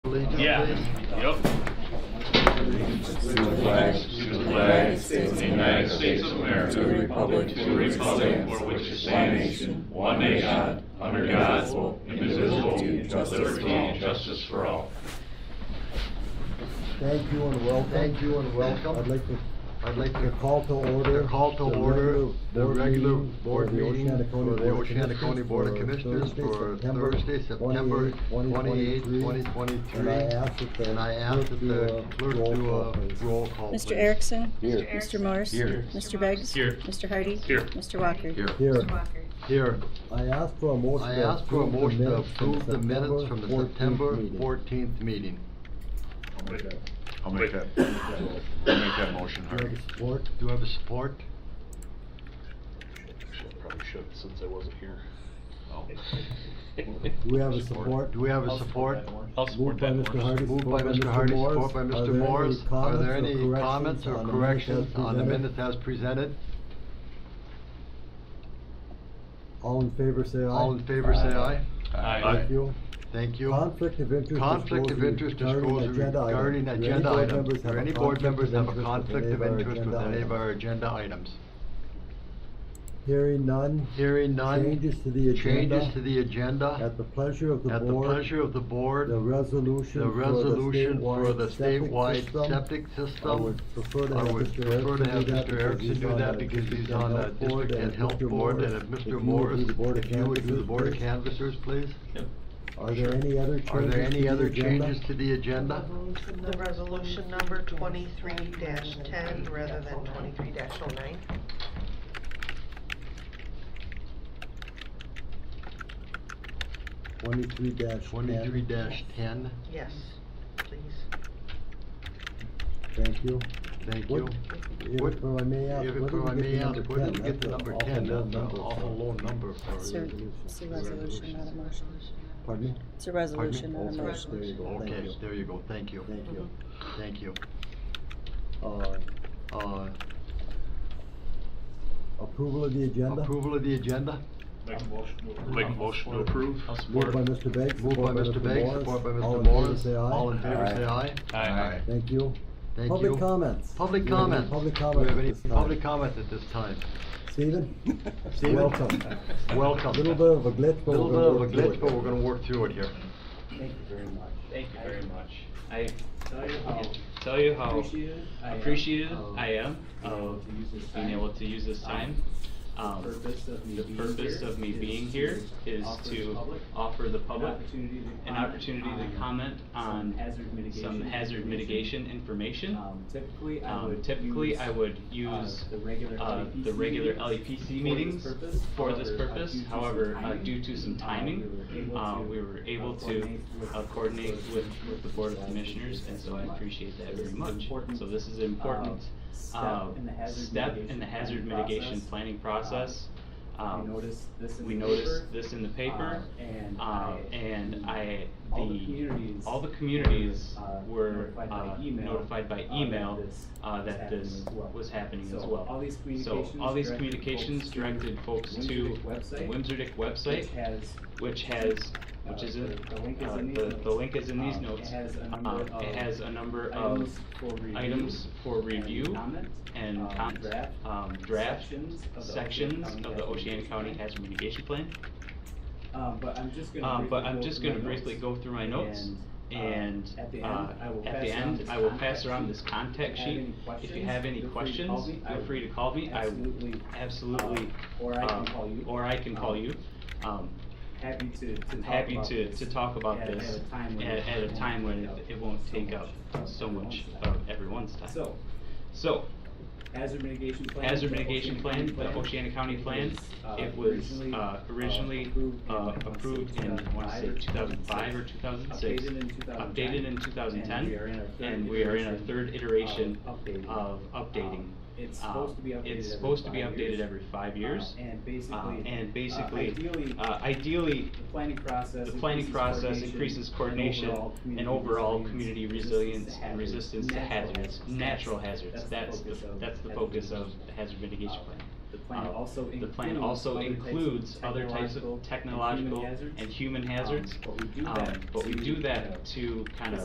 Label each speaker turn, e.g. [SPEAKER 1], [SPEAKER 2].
[SPEAKER 1] allegiance.
[SPEAKER 2] Yeah, yep.
[SPEAKER 3] To the flag, to the United States of the United States of America, to the republic, to the republic for which it stands, one nation, under God, indivisible, with liberty and justice for all.
[SPEAKER 1] Thank you and welcome. Thank you and welcome.
[SPEAKER 4] I'd like to
[SPEAKER 1] I'd like to call to order. Call to
[SPEAKER 4] the
[SPEAKER 1] order
[SPEAKER 4] regular
[SPEAKER 1] the
[SPEAKER 4] board
[SPEAKER 1] regular
[SPEAKER 4] meeting
[SPEAKER 1] board
[SPEAKER 4] for the
[SPEAKER 1] meeting
[SPEAKER 4] Oceana
[SPEAKER 1] for
[SPEAKER 4] County
[SPEAKER 1] the
[SPEAKER 4] Board of
[SPEAKER 1] Oceana County Board
[SPEAKER 4] Commissioners
[SPEAKER 1] of Commissioners
[SPEAKER 4] for Thursday,
[SPEAKER 1] for
[SPEAKER 4] September
[SPEAKER 1] Thursday, September
[SPEAKER 4] 28,
[SPEAKER 1] twenty-eighth, twenty twenty-three.
[SPEAKER 4] And I ask that the
[SPEAKER 1] And I ask that the clerk do a roll call, please.
[SPEAKER 5] Mr. Erickson?
[SPEAKER 3] Here.
[SPEAKER 5] Mr. Morris?
[SPEAKER 3] Here.
[SPEAKER 5] Mr. Beggs?
[SPEAKER 2] Here.
[SPEAKER 5] Mr. Hardy?
[SPEAKER 2] Here.
[SPEAKER 5] Mr. Walker?
[SPEAKER 3] Here.
[SPEAKER 4] Here,
[SPEAKER 1] Here.
[SPEAKER 4] I ask for a motion.
[SPEAKER 1] I
[SPEAKER 4] to
[SPEAKER 1] ask for a
[SPEAKER 4] approve the
[SPEAKER 1] motion to
[SPEAKER 4] minutes from
[SPEAKER 1] approve the minutes from the September
[SPEAKER 4] 14th meeting.
[SPEAKER 1] fourteenth meeting.
[SPEAKER 3] I'll make that, I'll make that motion,
[SPEAKER 1] Do I have a support? Do I have a support?
[SPEAKER 2] Probably should, since I wasn't here. Oh.
[SPEAKER 4] Do we have a support?
[SPEAKER 1] Do we have a support?
[SPEAKER 2] I'll
[SPEAKER 4] Moved
[SPEAKER 2] support
[SPEAKER 4] by
[SPEAKER 2] that
[SPEAKER 4] Mr.
[SPEAKER 2] motion.
[SPEAKER 4] Hardy.
[SPEAKER 1] Moved by Mr. Hardy, support by Mr. Morris. Are there any comments or corrections on the minutes as presented?
[SPEAKER 4] All in favor, say aye.
[SPEAKER 1] All in favor, say aye.
[SPEAKER 2] Aye.
[SPEAKER 4] Thank you.
[SPEAKER 1] Thank you.
[SPEAKER 4] Conflict of interest.
[SPEAKER 1] Conflict of interest disclosure regarding agenda items. Do any board members have a conflict of interest with any of our agenda items?
[SPEAKER 4] Hearing none.
[SPEAKER 1] Hearing none.
[SPEAKER 4] Changes to the
[SPEAKER 1] Changes
[SPEAKER 4] agenda.
[SPEAKER 1] to the agenda
[SPEAKER 4] At the pleasure of the
[SPEAKER 1] at the
[SPEAKER 4] board.
[SPEAKER 1] pleasure of the board.
[SPEAKER 4] The resolution
[SPEAKER 1] The resolution for the statewide septic
[SPEAKER 4] I
[SPEAKER 1] system.
[SPEAKER 4] would prefer to
[SPEAKER 1] I
[SPEAKER 4] have
[SPEAKER 1] would prefer to have Mr. Erickson do that because he's on the district and health board and if Mr. Morris, if you would do the board of
[SPEAKER 4] can.
[SPEAKER 1] canvassers, please.
[SPEAKER 4] Are there any other changes
[SPEAKER 1] Are there any other changes to
[SPEAKER 4] the?
[SPEAKER 1] the agenda?
[SPEAKER 6] The resolution number twenty-three ten rather than twenty-three oh 9
[SPEAKER 4] Twenty-three dash
[SPEAKER 1] Twenty-three ten,
[SPEAKER 6] Yes, please.
[SPEAKER 4] Thank you.
[SPEAKER 1] thank you.
[SPEAKER 4] What-
[SPEAKER 1] What-
[SPEAKER 4] If if I may ask,
[SPEAKER 1] If
[SPEAKER 4] where
[SPEAKER 1] if I
[SPEAKER 4] did we
[SPEAKER 1] may
[SPEAKER 4] get the
[SPEAKER 1] ask,
[SPEAKER 4] number
[SPEAKER 1] where
[SPEAKER 4] ten?
[SPEAKER 1] did you get the
[SPEAKER 4] That's an
[SPEAKER 1] number
[SPEAKER 4] awful
[SPEAKER 1] ten?
[SPEAKER 4] low
[SPEAKER 1] That's an
[SPEAKER 4] number
[SPEAKER 1] awful
[SPEAKER 4] for-
[SPEAKER 1] low number
[SPEAKER 5] It's
[SPEAKER 1] for.
[SPEAKER 5] a- it's a resolution, not a motion.
[SPEAKER 4] Pardon me?
[SPEAKER 5] It's a resolution,
[SPEAKER 4] Oh,
[SPEAKER 5] not a
[SPEAKER 4] sorry, There you
[SPEAKER 5] motion.
[SPEAKER 4] go, thank
[SPEAKER 1] Okay,
[SPEAKER 4] you,
[SPEAKER 1] there you go, thank you,
[SPEAKER 4] thank you.
[SPEAKER 1] thank you.
[SPEAKER 4] Uh,
[SPEAKER 1] Uh,
[SPEAKER 4] approval of the agenda?
[SPEAKER 1] approval of the agenda?
[SPEAKER 2] Make a motion to approve. I'll
[SPEAKER 4] Moved by Mr. Beggs.
[SPEAKER 1] Moved by
[SPEAKER 4] support
[SPEAKER 1] Mr. Beggs,
[SPEAKER 4] Morris.
[SPEAKER 1] support by
[SPEAKER 4] All
[SPEAKER 1] Mr.
[SPEAKER 4] in favor,
[SPEAKER 1] Morris.
[SPEAKER 4] say aye.
[SPEAKER 1] All in favor, say aye.
[SPEAKER 2] Aye.
[SPEAKER 4] Thank you.
[SPEAKER 1] Thank you.
[SPEAKER 4] Public comments.
[SPEAKER 1] Public
[SPEAKER 4] Do we have any
[SPEAKER 1] comment.
[SPEAKER 4] Public
[SPEAKER 1] Do we
[SPEAKER 4] comment
[SPEAKER 1] have
[SPEAKER 4] at
[SPEAKER 1] any
[SPEAKER 4] this time?
[SPEAKER 1] public comment at this time?
[SPEAKER 4] Stephen?
[SPEAKER 1] Stephen?
[SPEAKER 4] Welcome.
[SPEAKER 1] Welcome.
[SPEAKER 4] A little bit of a glitch, but
[SPEAKER 1] Little
[SPEAKER 4] we're
[SPEAKER 1] bit
[SPEAKER 4] gonna
[SPEAKER 1] of a
[SPEAKER 4] work through it.
[SPEAKER 1] glitch, but we're gonna work through it here.
[SPEAKER 7] Thank you very much.
[SPEAKER 8] Thank you very much. I
[SPEAKER 7] Tell you how
[SPEAKER 8] tell you how
[SPEAKER 7] appreciated I am
[SPEAKER 8] appreciative
[SPEAKER 7] of
[SPEAKER 8] I am
[SPEAKER 7] being able
[SPEAKER 8] of
[SPEAKER 7] to use this
[SPEAKER 8] being
[SPEAKER 7] time.
[SPEAKER 8] able to use this time.
[SPEAKER 7] The
[SPEAKER 8] Um,
[SPEAKER 7] purpose of me
[SPEAKER 8] the
[SPEAKER 7] being
[SPEAKER 8] purpose
[SPEAKER 7] here
[SPEAKER 8] of me
[SPEAKER 7] is
[SPEAKER 8] being
[SPEAKER 7] to
[SPEAKER 8] here is
[SPEAKER 7] offer the
[SPEAKER 8] to
[SPEAKER 7] public
[SPEAKER 8] offer the public
[SPEAKER 7] opportunity to
[SPEAKER 8] an
[SPEAKER 7] comment
[SPEAKER 8] opportunity to
[SPEAKER 7] on
[SPEAKER 8] comment on
[SPEAKER 7] Um, some hazard
[SPEAKER 8] some
[SPEAKER 7] mitigation
[SPEAKER 8] hazard
[SPEAKER 7] information.
[SPEAKER 8] mitigation information.
[SPEAKER 7] Um, Typically, I
[SPEAKER 8] Um,
[SPEAKER 7] would.
[SPEAKER 8] typically, I would
[SPEAKER 7] uh,
[SPEAKER 8] use
[SPEAKER 7] The regular
[SPEAKER 8] uh,
[SPEAKER 7] LEPC.
[SPEAKER 8] the regular
[SPEAKER 7] meetings
[SPEAKER 8] LEPC meetings
[SPEAKER 7] for this purpose.
[SPEAKER 8] for this
[SPEAKER 7] However, uh,
[SPEAKER 8] purpose.
[SPEAKER 7] due to some
[SPEAKER 8] However, uh,
[SPEAKER 7] timing,
[SPEAKER 8] due
[SPEAKER 7] uh,
[SPEAKER 8] to some timing, uh, we were able
[SPEAKER 7] uh,
[SPEAKER 8] to
[SPEAKER 7] with-
[SPEAKER 8] uh, coordinate with, with the Board of
[SPEAKER 7] uh,
[SPEAKER 8] Commissioners, and so I appreciate that very
[SPEAKER 7] This is
[SPEAKER 8] much.
[SPEAKER 7] important,
[SPEAKER 8] So this is
[SPEAKER 7] uh,
[SPEAKER 8] an important uh,
[SPEAKER 7] Step in the hazard
[SPEAKER 8] step in the
[SPEAKER 7] mitigation
[SPEAKER 8] hazard
[SPEAKER 7] planning process.
[SPEAKER 8] mitigation planning
[SPEAKER 7] Uh,
[SPEAKER 8] process.
[SPEAKER 7] We
[SPEAKER 8] Um,
[SPEAKER 7] noticed this in the
[SPEAKER 8] We
[SPEAKER 7] paper.
[SPEAKER 8] noticed this in the paper,
[SPEAKER 7] uh, and
[SPEAKER 8] uh,
[SPEAKER 7] I-
[SPEAKER 8] and I,
[SPEAKER 7] all the
[SPEAKER 8] the,
[SPEAKER 7] communities
[SPEAKER 8] all the communities
[SPEAKER 7] were, uh,
[SPEAKER 8] were
[SPEAKER 7] notified by
[SPEAKER 8] uh,
[SPEAKER 7] email,
[SPEAKER 8] notified by
[SPEAKER 7] uh, that
[SPEAKER 8] email
[SPEAKER 7] this
[SPEAKER 8] uh,
[SPEAKER 7] was
[SPEAKER 8] that
[SPEAKER 7] happening
[SPEAKER 8] this
[SPEAKER 7] as well.
[SPEAKER 8] was happening as
[SPEAKER 7] So
[SPEAKER 8] well.
[SPEAKER 7] all these
[SPEAKER 8] So all these
[SPEAKER 7] communications
[SPEAKER 8] communications
[SPEAKER 7] directed
[SPEAKER 8] directed folks
[SPEAKER 7] folks
[SPEAKER 8] to
[SPEAKER 7] to
[SPEAKER 8] the Wimserdick
[SPEAKER 7] Which
[SPEAKER 8] website,
[SPEAKER 7] has
[SPEAKER 8] which has, which
[SPEAKER 7] Uh,
[SPEAKER 8] is, in-
[SPEAKER 7] the- the link is
[SPEAKER 8] uh,
[SPEAKER 7] in these
[SPEAKER 8] the,
[SPEAKER 7] notes.
[SPEAKER 8] the link is in these
[SPEAKER 7] Um, it
[SPEAKER 8] notes.
[SPEAKER 7] has a number
[SPEAKER 8] Um,
[SPEAKER 7] of
[SPEAKER 8] It has a number
[SPEAKER 7] items
[SPEAKER 8] of
[SPEAKER 7] for review
[SPEAKER 8] items for
[SPEAKER 7] and
[SPEAKER 8] review
[SPEAKER 7] comment,
[SPEAKER 8] and
[SPEAKER 7] um,
[SPEAKER 8] com-
[SPEAKER 7] draft
[SPEAKER 8] um, draft
[SPEAKER 7] sections of the Oceana
[SPEAKER 8] sections
[SPEAKER 7] County
[SPEAKER 8] of the
[SPEAKER 7] Hazard
[SPEAKER 8] Oceana
[SPEAKER 7] Mitigation
[SPEAKER 8] County
[SPEAKER 7] Plan.
[SPEAKER 8] Hazard Mitigation Plan.
[SPEAKER 7] Um, but I'm just gonna.
[SPEAKER 8] Um,
[SPEAKER 7] briefly
[SPEAKER 8] but I'm
[SPEAKER 7] go
[SPEAKER 8] just
[SPEAKER 7] through
[SPEAKER 8] gonna
[SPEAKER 7] my
[SPEAKER 8] briefly
[SPEAKER 7] notes,
[SPEAKER 8] go through my notes and,
[SPEAKER 7] uh, at the
[SPEAKER 8] uh,
[SPEAKER 7] end, I will
[SPEAKER 8] at
[SPEAKER 7] pass
[SPEAKER 8] the
[SPEAKER 7] around
[SPEAKER 8] end,
[SPEAKER 7] this
[SPEAKER 8] I will
[SPEAKER 7] contact
[SPEAKER 8] pass around
[SPEAKER 7] sheet.
[SPEAKER 8] this contact
[SPEAKER 7] If you have
[SPEAKER 8] sheet.
[SPEAKER 7] any
[SPEAKER 8] If you have any
[SPEAKER 7] questions,
[SPEAKER 8] questions, feel free to call me. I
[SPEAKER 7] absolutely,
[SPEAKER 8] w- absolutely,
[SPEAKER 7] uh, or I can
[SPEAKER 8] um,
[SPEAKER 7] call you.
[SPEAKER 8] Or I can call
[SPEAKER 7] Um,
[SPEAKER 8] you. Um,
[SPEAKER 7] Happy to, to talk
[SPEAKER 8] I'm happy
[SPEAKER 7] about
[SPEAKER 8] to,
[SPEAKER 7] this
[SPEAKER 8] to talk about
[SPEAKER 7] at-
[SPEAKER 8] this
[SPEAKER 7] At a time when.
[SPEAKER 8] at,
[SPEAKER 7] it
[SPEAKER 8] at a
[SPEAKER 7] won't
[SPEAKER 8] time when
[SPEAKER 7] take
[SPEAKER 8] it,
[SPEAKER 7] up
[SPEAKER 8] it won't
[SPEAKER 7] so
[SPEAKER 8] take
[SPEAKER 7] much
[SPEAKER 8] up
[SPEAKER 7] of
[SPEAKER 8] so much
[SPEAKER 7] everyone's time.
[SPEAKER 8] of everyone's time.
[SPEAKER 7] So,
[SPEAKER 8] So,
[SPEAKER 7] hazard mitigation plan.
[SPEAKER 8] hazard
[SPEAKER 7] the
[SPEAKER 8] mitigation
[SPEAKER 7] Oceana
[SPEAKER 8] plan, the
[SPEAKER 7] County
[SPEAKER 8] Oceana County plan, it was
[SPEAKER 7] originally,
[SPEAKER 8] uh,
[SPEAKER 7] uh,
[SPEAKER 8] originally uh, approved in, I want to say, 2005
[SPEAKER 7] uh,
[SPEAKER 8] or 2006.
[SPEAKER 7] Updated in 2010.
[SPEAKER 8] Updated in 2010, and we are in our third iteration of updating.
[SPEAKER 7] Um, It's
[SPEAKER 8] Uh,
[SPEAKER 7] supposed to be updated.
[SPEAKER 8] It's
[SPEAKER 7] every
[SPEAKER 8] supposed to be
[SPEAKER 7] five
[SPEAKER 8] updated
[SPEAKER 7] years.
[SPEAKER 8] every five years.
[SPEAKER 7] Uh, And
[SPEAKER 8] Uh,
[SPEAKER 7] basically.
[SPEAKER 8] And
[SPEAKER 7] uh,
[SPEAKER 8] basically,
[SPEAKER 7] Ideally,
[SPEAKER 8] uh, ideally,
[SPEAKER 7] the planning process.
[SPEAKER 8] the planning
[SPEAKER 7] increases
[SPEAKER 8] process
[SPEAKER 7] coordination
[SPEAKER 8] increases
[SPEAKER 7] and
[SPEAKER 8] coordination
[SPEAKER 7] overall
[SPEAKER 8] and overall
[SPEAKER 7] community
[SPEAKER 8] community
[SPEAKER 7] resilience
[SPEAKER 8] resilience and resistance to hazards, natural hazards. That's the, that's the focus of the hazard mitigation
[SPEAKER 7] Uh,
[SPEAKER 8] plan.
[SPEAKER 7] The plan
[SPEAKER 8] Uh,
[SPEAKER 7] also
[SPEAKER 8] The plan also includes other types of technological and human hazards.
[SPEAKER 7] Um, but we do
[SPEAKER 8] Um,
[SPEAKER 7] that
[SPEAKER 8] But we
[SPEAKER 7] to
[SPEAKER 8] do
[SPEAKER 7] kind of
[SPEAKER 8] that to kind of